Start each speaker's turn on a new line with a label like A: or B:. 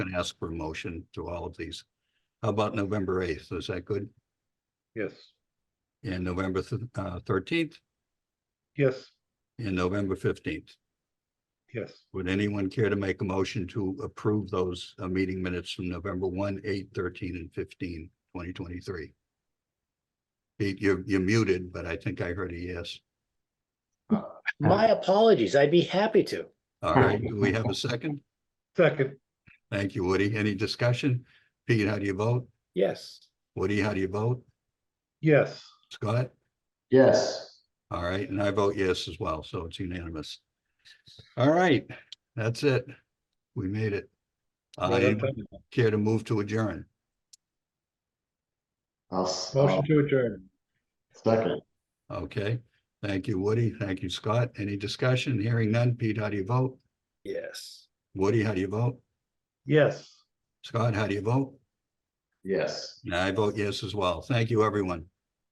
A: gonna ask for a motion to all of these. How about November eighth? Is that good?
B: Yes,
A: And November th- uh, thirteenth
B: yes,
A: and November fifteenth?
B: yes.
A: Would anyone care to make a motion to approve those uh, meeting minutes from November 1, 8, 13, and 15, 2023? Pete, you're, you're muted, but I think I heard a yes.
C: My apologies. I'd be happy to.
A: All right, do we have a second?
B: Second,
A: Thank you, Woody. Any discussion? Pete, how do you vote?
C: Yes.
A: Woody, how do you vote?
B: yes,
A: Scott?
D: Yes,
A: All right, and I vote yes as well, so it's unanimous. All right, that's it. We made it.
B: Right on
A: I
B: time.
A: care to move to adjourn.
D: I'll, s- I'll
B: motion to adjourn.
D: second,
A: Okay, thank you, Woody. Thank you, Scott. Any discussion? Hearing none. Pete, how do you vote?
C: Yes.
A: Woody, how do you vote?
B: Yes.
A: Scott, how do you vote?
D: yes.
A: And I vote yes as well. Thank you, everyone.